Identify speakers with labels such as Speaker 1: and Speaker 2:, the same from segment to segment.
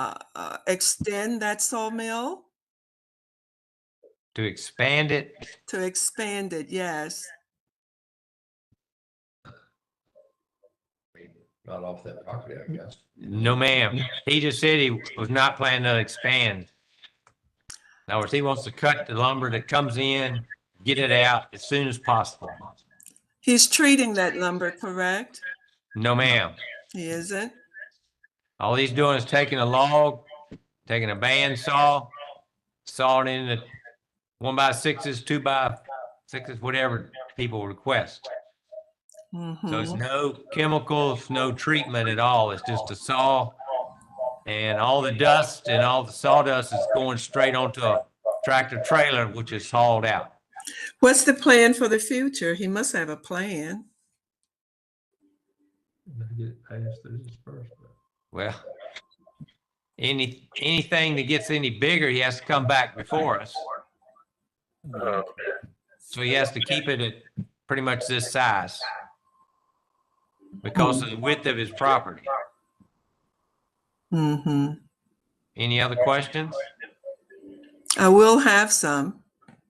Speaker 1: uh, uh, extend that sawmill,
Speaker 2: to expand it.
Speaker 1: to expand it, yes.
Speaker 3: Not off that property, I guess.
Speaker 2: No, ma'am. He just said he was not planning to expand. In other words, he wants to cut the lumber that comes in, get it out as soon as possible.
Speaker 1: He's treating that lumber, correct?
Speaker 2: No, ma'am.
Speaker 1: He isn't?
Speaker 2: All he's doing is taking a log, taking a band saw, sawing in the one by sixes, two by sixes, whatever people request. So it's
Speaker 1: Mhm.
Speaker 2: no chemicals, no treatment at all. It's just a saw. And all the dust and all the sawdust is going straight onto a tractor trailer, which is hauled out.
Speaker 1: What's the plan for the future? He must have a plan.
Speaker 3: They get past the disbursement.
Speaker 2: Well, any, anything that gets any bigger, he has to come back before us. So he has to keep it at pretty much this size because of the width of his property.
Speaker 1: hmm
Speaker 2: Any other questions?
Speaker 1: I will have some.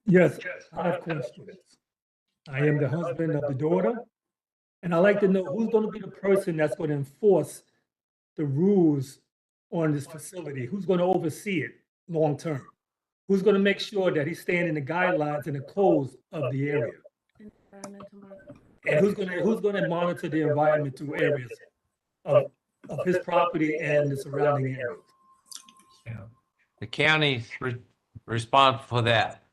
Speaker 4: Yes, I have questions. I am the husband of the daughter, and I'd like to know who's going to be the person that's going to enforce the rules on this facility? Who's going to oversee it long-term? Who's going to make sure that he's staying in the guidelines and the codes of the area? And who's going to, who's going to monitor the environment through areas of, of his property and the surrounding areas?
Speaker 2: The county's re- responsible for that.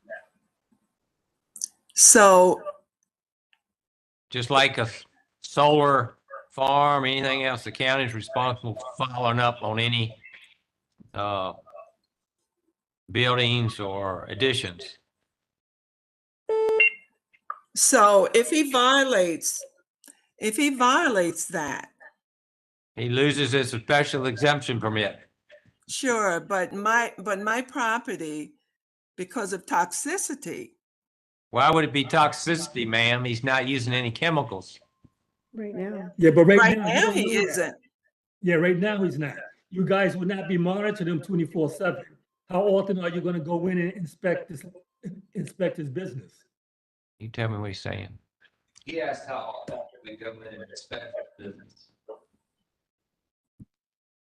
Speaker 1: So,
Speaker 2: just like a s- solar farm, anything else, the county's responsible for following up on any uh, buildings or additions.
Speaker 1: so if he violates, if he violates that,
Speaker 2: He loses his special exemption permit.
Speaker 1: sure, but my, but my property, because of toxicity,
Speaker 2: Why would it be toxicity, ma'am? He's not using any chemicals.
Speaker 5: Right now.
Speaker 4: Yeah, but
Speaker 1: right
Speaker 4: right now.
Speaker 1: now
Speaker 4: don't
Speaker 1: he
Speaker 4: do that.
Speaker 1: isn't.
Speaker 4: Yeah, right now he's not. You guys would not be monitoring him twenty-four seven. How often are you gonna go in and inspect this, inspect his business?
Speaker 2: You tell me what he's saying.
Speaker 6: He asked how often we go in and inspect the business.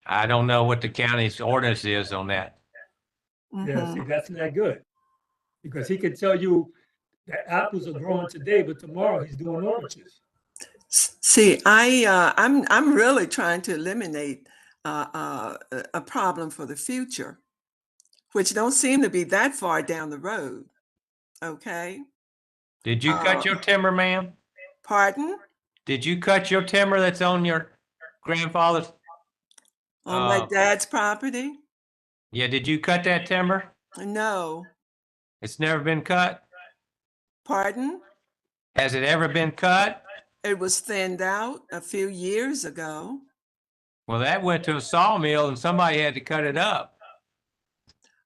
Speaker 2: I don't know what the county's ordinance is on that.
Speaker 4: Yeah, see,
Speaker 1: Mhm.
Speaker 4: that's not good. Because he could tell you that apples are growing today, but tomorrow he's doing oranges.
Speaker 1: S- See, I, uh, I'm, I'm really trying to eliminate, uh, uh, a, a problem for the future, which don't seem to be that far down the road. Okay,
Speaker 2: Did you
Speaker 1: Uh,
Speaker 2: cut your timber, ma'am?
Speaker 1: pardon?
Speaker 2: Did you cut your timber that's on your grandfather's?
Speaker 1: On my
Speaker 2: Uh,
Speaker 1: dad's property?
Speaker 2: Yeah, did you cut that timber?
Speaker 1: No,
Speaker 2: It's never been cut?
Speaker 1: pardon?
Speaker 2: Has it ever been cut?
Speaker 1: It was thinned out a few years ago.
Speaker 2: Well, that went to a sawmill and somebody had to cut it up.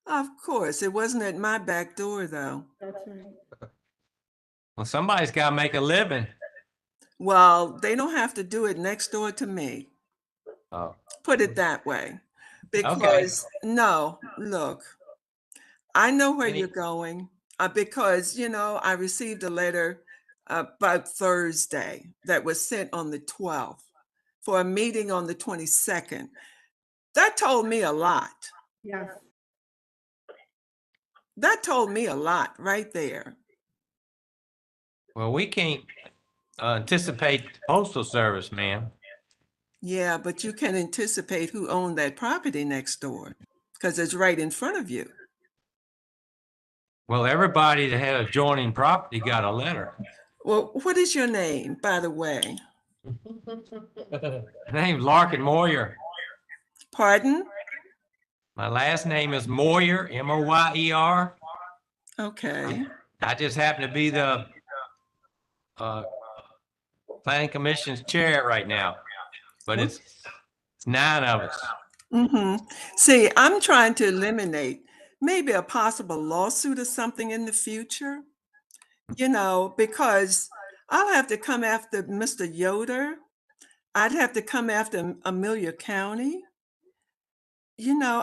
Speaker 1: Of course, it wasn't at my back door though.
Speaker 5: That's right.
Speaker 2: Well, somebody's got to make a living.
Speaker 1: Well, they don't have to do it next door to me.
Speaker 2: Oh.
Speaker 1: Put it that way. Because, no, look, I know where
Speaker 2: Any-
Speaker 1: you're going uh, because, you know, I received a letter uh, by Thursday that was sent on the 12th for a meeting on the 22nd. That told me a lot.
Speaker 5: Yes.
Speaker 1: That told me a lot right there.
Speaker 2: Well, we can't uh, anticipate the postal service, ma'am.
Speaker 1: Yeah, but you can anticipate who owned that property next door because it's right in front of you.
Speaker 2: Well, everybody that had adjoining property got a letter.
Speaker 1: Well, what is your name, by the way?
Speaker 2: My name's Larkin Moyer.
Speaker 1: Pardon?
Speaker 2: My last name is Moyer, M O Y E R.
Speaker 1: Okay.
Speaker 2: I just happen to be the uh, planning commission's chair right now, but it's it's nine of us.
Speaker 1: hmm See, I'm trying to eliminate maybe a possible lawsuit or something in the future, you know, because I'll have to come after Mr. Yoder. I'd have to come after Amelia County. You know,